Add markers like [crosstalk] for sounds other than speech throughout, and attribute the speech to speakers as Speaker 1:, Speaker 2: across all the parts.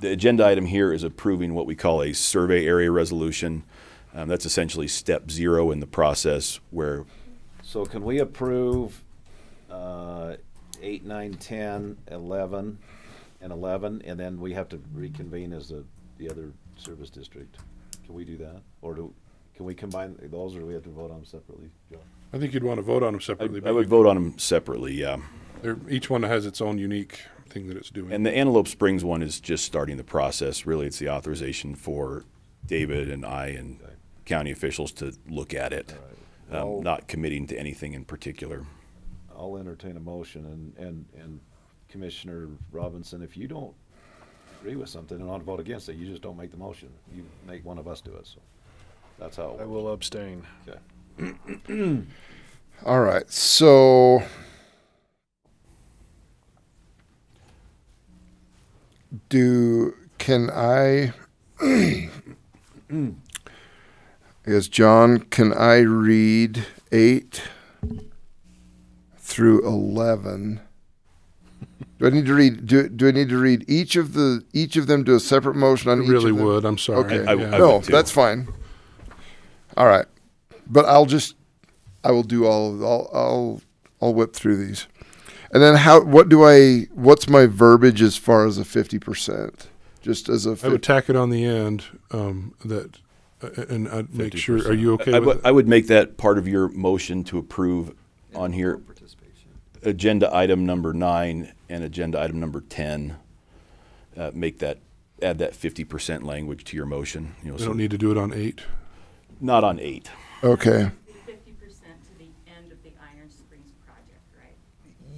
Speaker 1: the agenda item here is approving what we call a survey area resolution. Um, that's essentially step zero in the process where
Speaker 2: So can we approve uh, eight, nine, 10, 11, and 11, and then we have to reconvene as the, the other service district? Can we do that? Or do, can we combine those, or do we have to vote on them separately, Joe?
Speaker 3: I think you'd want to vote on them
Speaker 1: I,
Speaker 3: separately.
Speaker 1: I would vote on them separately, yeah.
Speaker 3: They're, each one has its own unique thing that it's doing.
Speaker 1: And the Antelope Springs one is just starting the process. Really, it's the authorization for David and I and county officials to look at it,
Speaker 2: right.
Speaker 1: um,
Speaker 2: Well-
Speaker 1: not committing to anything in particular.
Speaker 2: I'll entertain a motion, and, and, and Commissioner Robinson, if you don't agree with something and want to vote against it, you just don't make the motion. You make one of us do it, so that's how.
Speaker 4: I will abstain.
Speaker 2: Okay.
Speaker 5: All right. So do can I [clears throat] Yes, John, can I read 8 through 11? Do I need to read do, do I need to read each of the each of them do a separate motion
Speaker 3: I
Speaker 5: on each
Speaker 3: really
Speaker 5: of them?
Speaker 3: would. I'm sorry.
Speaker 5: Okay.
Speaker 1: I- I would
Speaker 3: Yeah.
Speaker 5: no,
Speaker 1: too.
Speaker 5: that's fine. All right, but I'll just I will do all of I'll I'll I'll whip through these, and then how what do I what's my verbiage as far as a fifty percent? Just as a
Speaker 3: I would
Speaker 5: fifty
Speaker 3: tack it on the end um, that, uh, and I'd make sure. Are you okay
Speaker 1: I,
Speaker 3: with
Speaker 1: would- I would make that part of your motion to approve on here, agenda item number nine and agenda item number 10. Uh, make that, add that 50% language to your motion. You know,
Speaker 3: it? We
Speaker 1: so
Speaker 3: don't need to do it on eight.
Speaker 1: not on eight.
Speaker 5: okay.
Speaker 6: fifty percent to the end of the Iron Springs project, right?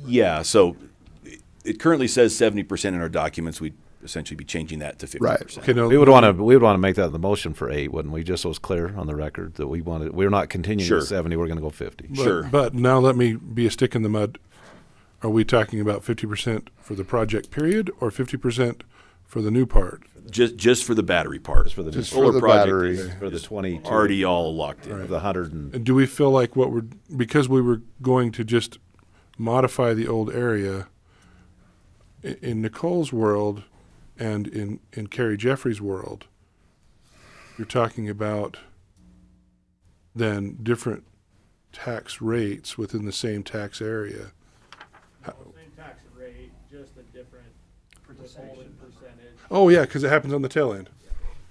Speaker 1: Yeah, so it- it currently says 70% in our documents. We'd essentially be changing that to 50%.
Speaker 3: Okay, no,
Speaker 2: We would want to, we would want to make that the motion for eight, wouldn't we? Just so it's clear on the record that we wanted, we're not continuing
Speaker 1: Sure.
Speaker 2: at seventy, we're gonna go fifty.
Speaker 3: but,
Speaker 1: sure.
Speaker 3: But now let me be a stick in the mud. Are we talking about fifty percent for the project period or fifty percent for the new part?
Speaker 1: Just, just for the battery part.
Speaker 2: Just for the,
Speaker 5: Just
Speaker 2: for
Speaker 5: for
Speaker 1: solar
Speaker 5: the
Speaker 1: project
Speaker 5: battery.
Speaker 1: is-
Speaker 2: the twenty-two.
Speaker 1: Already all locked in.
Speaker 2: Of the hundred and,
Speaker 3: And do we feel like what we're because we were going to just modify the old area i- in Nicole's world and in in Carrie Jeffrey's world you're talking about then different tax rates within the same tax area
Speaker 7: Same tax rate, just a different withholding percentage.
Speaker 3: oh yeah cuz it happens on the tail end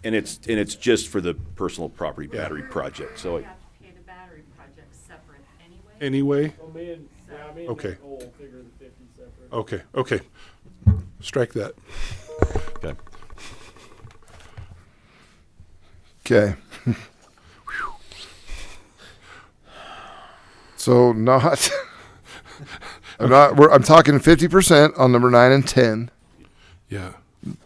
Speaker 1: And it's, and it's just for the personal property battery project. So
Speaker 6: You
Speaker 1: it-
Speaker 6: have to pay the battery project separate anyway.
Speaker 3: anyway
Speaker 7: So me and, yeah, me and
Speaker 3: Okay.
Speaker 7: Nicole figure the fifty separate.
Speaker 3: okay okay strike that
Speaker 2: okay.
Speaker 5: Okay. [laughs] so not. [laughs] I'm not. We're, I'm talking fifty percent on number nine and ten.
Speaker 3: yeah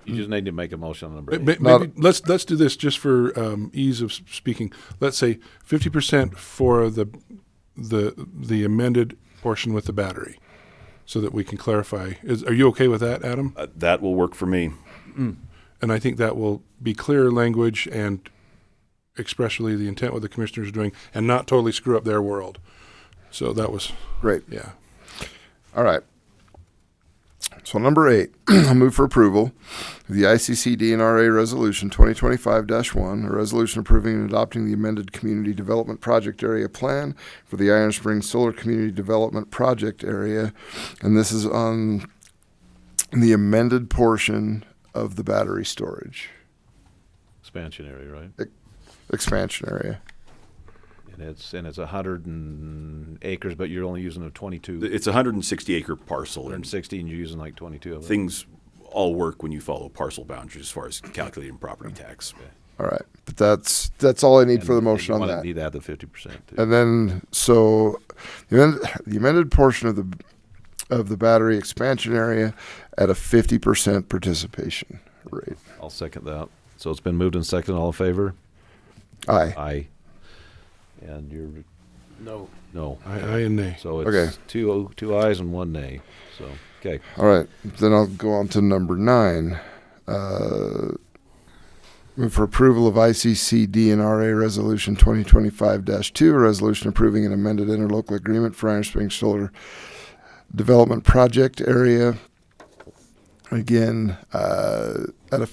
Speaker 2: You just need to make a motion on number
Speaker 3: May-
Speaker 2: eight.
Speaker 3: may-
Speaker 5: Not-
Speaker 3: maybe let's let's do this just for um, ease of s- speaking. Let's say fifty percent for the the the amended portion with the battery, so that we can clarify. Is, are you okay with that, Adam?
Speaker 1: uh, that will work for me.
Speaker 3: And I think that will be clear language and expressly the intent what the commissioners are doing, and not totally screw up their world. So that was
Speaker 5: Great.
Speaker 3: yeah.
Speaker 5: All right. So number eight, [clears throat] I'll move for approval of the ICC DNRA Resolution 2025-1, a resolution approving and adopting the amended Community Development Project Area Plan for the Iron Springs Solar Community Development Project Area, and this is on the amended portion of the battery storage
Speaker 2: Expansion area, right?
Speaker 5: expansion area.
Speaker 2: And it's, and it's a hundred and acres, but you're only using a twenty-two,
Speaker 1: It's a 160 acre parcel
Speaker 2: hundred and
Speaker 1: and
Speaker 2: sixty, and you're using like twenty-two of it.
Speaker 1: things all work when you follow parcel boundaries as far as calculating property tax.
Speaker 5: All right, but that's that's all I need for the
Speaker 2: And- and
Speaker 5: motion
Speaker 2: you
Speaker 5: on
Speaker 2: wanna
Speaker 5: that.
Speaker 2: Need to add the fifty percent too.
Speaker 5: And then, so the amended, the amended portion of the of the battery expansion area at a fifty percent participation rate.
Speaker 2: I'll second that. So it's been moved and seconded. All in favor?
Speaker 5: Aye.
Speaker 2: Aye. And you're,
Speaker 4: No.
Speaker 2: no.
Speaker 3: I, I and nay.
Speaker 2: So
Speaker 5: Okay.
Speaker 2: it's two oh- two ayes and one nay. So, okay.
Speaker 5: All right. Then I'll go on to number nine. Uh, move for approval of ICC DNRA Resolution 2025-2, a resolution approving an amended interlocal agreement for Iron Springs Solar Development Project Area. Again, uh, at a